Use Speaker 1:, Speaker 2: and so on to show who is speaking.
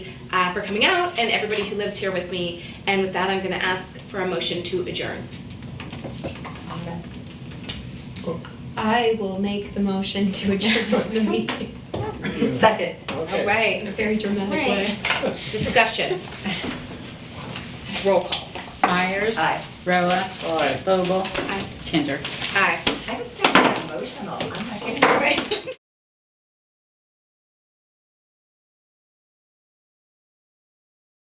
Speaker 1: uh, for coming out and everybody who lives here with me. And with that, I'm going to ask for a motion to adjourn.
Speaker 2: I will make the motion to adjourn the meeting
Speaker 3: Second.
Speaker 1: All
Speaker 4: Okay.
Speaker 2: in
Speaker 1: right.
Speaker 2: a very dramatic way.
Speaker 1: Discussion. Roll call.
Speaker 5: Myers.
Speaker 3: Aye.
Speaker 5: Rella.
Speaker 4: Aye.
Speaker 5: Vogel.
Speaker 1: Aye.
Speaker 5: Kinder.
Speaker 1: Aye.
Speaker 3: I didn't think I got emotional. I'm not kidding.